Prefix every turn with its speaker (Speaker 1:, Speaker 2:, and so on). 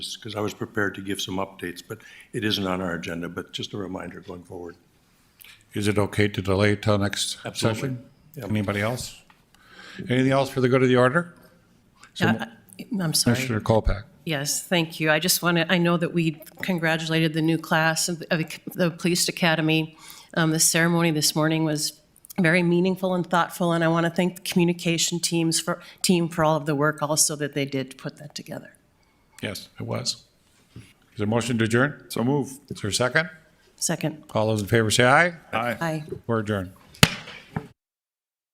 Speaker 1: because I was prepared to give some updates, but it isn't on our agenda, but just a reminder going forward.
Speaker 2: Is it okay to delay till next
Speaker 1: Absolutely.
Speaker 2: session?
Speaker 1: Yep.
Speaker 2: Anybody else? Anything else for the good of the order?
Speaker 3: Yeah, I- I'm sorry.
Speaker 2: Commissioner Kolpak?
Speaker 3: Yes, thank you. I just want to, I know that we congratulated the new class of of the Police Academy. Um, The ceremony this morning was very meaningful and thoughtful, and I want to thank the communication teams for, team for all of the work also that they did to put that together.
Speaker 2: Yes, it was. Is there a motion to adjourn? So move. Is there a second?
Speaker 3: Second.
Speaker 2: All those in favor say aye.
Speaker 3: Aye.
Speaker 2: We're adjourned.